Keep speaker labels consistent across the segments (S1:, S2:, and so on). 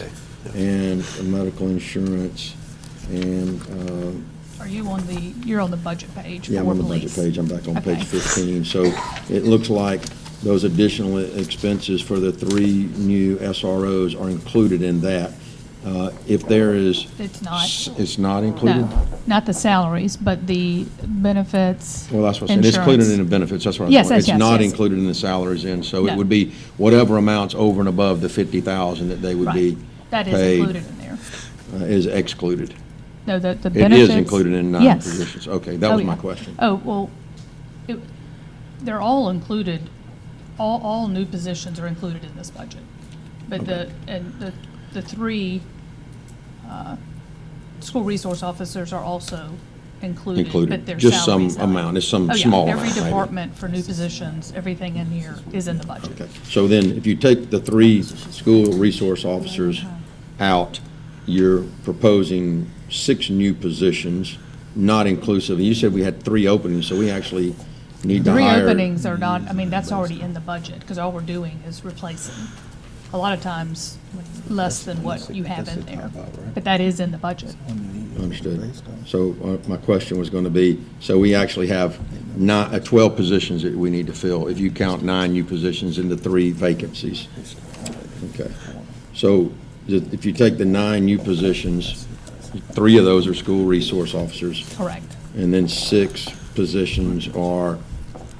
S1: Okay.
S2: and medical insurance, and, um,
S3: Are you on the, you're on the budget page
S2: yeah, I'm
S3: for
S2: on the budget
S3: police?
S2: page, I'm back on page
S3: Okay.
S2: 15. So it looks like those additional expenses for the three new SROs are included in that. Uh, If there is.
S3: It's not.
S2: s- It's not included?
S3: No, not the salaries, but the benefits.
S2: Well, that's what's, and it's included in the
S3: insurance.
S2: benefits, that's what I'm.
S3: Yes, yes, yes,
S2: It's not
S3: yes.
S2: included in the salaries in, so it
S3: No.
S2: would be whatever amounts over and above the 50,000 that they would be.
S3: Right. That is
S2: paid,
S3: included in there.
S2: uh, Is excluded.
S3: No, the, the
S2: It
S3: benefits.
S2: is included in nine
S3: Yes.
S2: positions. Okay, that
S3: Oh,
S2: was my
S3: yeah.
S2: question.
S3: Oh, well, it, they're all included, all, all new positions are included in this budget. But the, and the, the three, uh, school resource officers are also included.
S2: Included.
S3: But their
S2: Just
S3: salaries
S2: some
S3: are-
S2: amount. It's some
S3: Oh, yeah.
S2: small amount,
S3: Every
S2: maybe.
S3: department for new positions, everything in here is in the budget.
S2: Okay, so then if you take the three school resource officers out, you're proposing six new positions, not inclusive. You said we had three openings, so we actually need to
S3: The
S2: hire.
S3: reopenings are not, I mean, that's already in the budget, because all we're doing is replacing. A lot of times, less than what you have in there, but that is in the budget.
S2: Understood. So uh, my question was going to be, so we actually have nine, uh, 12 positions that we need to fill, if you count nine new positions and the three vacancies. Okay. So i- if you take the nine new positions, three of those are school resource officers,
S3: Correct.
S2: and then six positions are,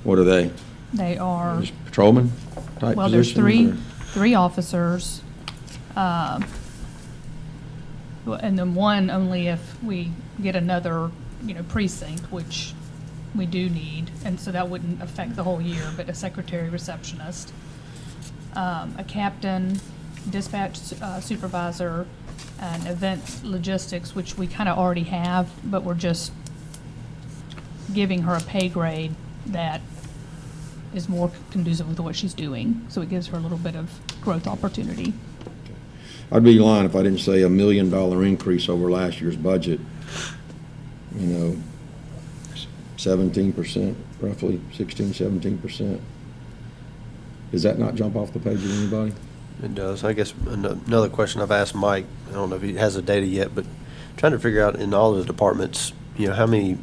S2: what are they?
S3: They are,
S2: Just Patrolman type positions?
S3: well, there's three,
S2: or-
S3: three officers, um, well, and then one only if we get another, you know, precinct, which we do need, and so that wouldn't affect the whole year, but a secretary receptionist, um, a captain, dispatch uh, supervisor, and event logistics, which we kind of already have, but we're just giving her a pay grade that is more conducive with what she's doing. So it gives her a little bit of growth opportunity.
S2: I'd be lying if I didn't say a million dollar increase over last year's budget. You know, seventeen percent, roughly 16, 17 percent. Does that not jump off the page at anybody?
S1: It does. I guess an- another question I've asked Mike, I don't know if he has the data yet, but trying to figure out in all the departments, you know, how many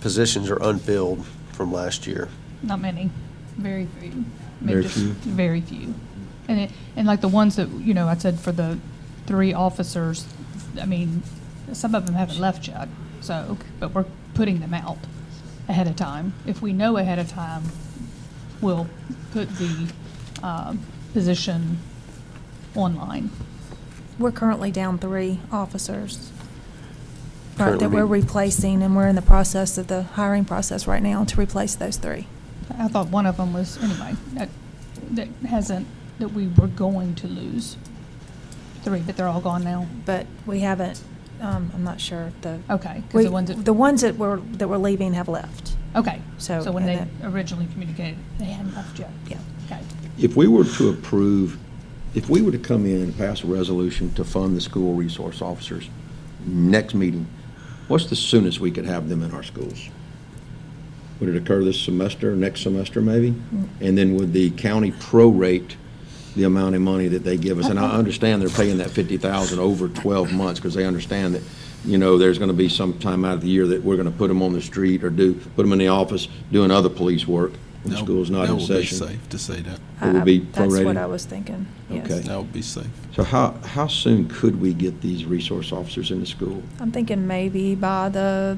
S1: positions are unfilled from last year?
S3: Not many, very few. I mean,
S2: Very
S3: just
S2: few.
S3: Very few. And it, and like the ones that, you know, I said for the three officers, I mean, some of them haven't left yet, so, but we're putting them out ahead of time. If we know ahead of time, we'll put the, um, position online.
S4: We're currently down three officers. Right,
S1: Currently
S4: that we're
S1: being-
S4: replacing, and we're in the process of the hiring process right now to replace those three.
S3: I thought one of them was, anyway, that, that hasn't, that we were going to lose three, but they're all gone now.
S4: But we haven't, um, I'm not sure if the.
S3: Okay, 'cause the
S4: We-
S3: ones that-
S4: The ones that were, that were leaving have left.
S3: Okay.
S4: So,
S3: So when
S4: and
S3: they
S4: that-
S3: originally communicated, they hadn't left yet.
S4: Yeah.
S3: Okay.
S2: If we were to approve, if we were to come in and pass a resolution to fund the school resource officers next meeting, what's the soonest we could have them in our schools? Would it occur this semester, next semester maybe? And then would the county prorate the amount of money that they give us? And I understand they're paying that fifty thousand over twelve months because they understand that, you know, there's going to be some time out of the year that we're going to put them on the street or do, put them in the office doing other police work. when The
S5: That-
S2: school's not in session.
S5: That would be safe to say that.
S2: It would be
S4: I- Um, That's
S2: prorated?
S4: what I was thinking, yes.
S2: Okay.
S5: That would be safe.
S2: So how, how soon could we get these resource officers into school?
S4: I'm thinking maybe by the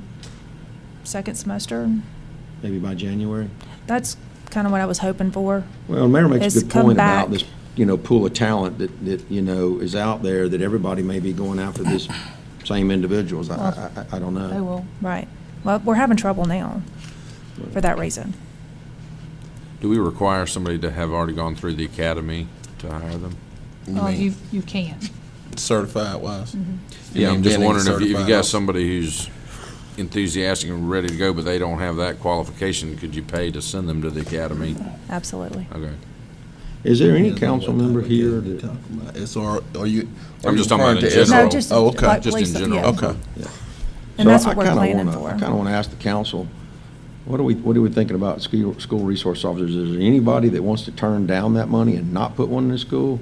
S4: second semester.
S2: Maybe by January?
S4: That's kind of what I was hoping for.
S2: Well, the Mayor makes a
S4: It's
S2: good
S4: come
S2: point about
S4: back.
S2: this, you know, pool of talent that, that, you know, is out there, that everybody may be going after this same individuals. I- I, I, I don't know.
S3: They will.
S4: Right. Well, we're having trouble now for that reason.
S6: Do we require somebody to have already gone through the academy to hire them?
S4: Oh,
S3: Well, you, you can.
S5: Certified wise.
S4: Mm-hmm.
S6: Yeah, I'm just
S5: Being
S6: wondering if you, if you
S5: certified
S6: got
S5: officer.
S6: somebody who's enthusiastic and ready to go, but they don't have that qualification, could you pay to send them to the academy?
S4: Absolutely.
S6: Okay.
S2: Is there any council member here that,
S5: It's, or, are you? are
S6: I'm
S5: you
S6: just talking
S5: referring
S6: about in
S5: to
S6: general.
S4: No, just-
S5: Oh, okay.
S4: like-
S6: Just in
S4: Lisa,
S6: general.
S4: yeah.
S5: Okay.
S4: And
S2: So
S4: that's
S2: I- I
S4: what we're
S2: kinda
S4: planning
S2: wanna-
S4: for.
S2: I kind of want to ask the council, what are we, what are we thinking about school, school resource officers? Is there anybody that wants to turn down that money and not put one in the school?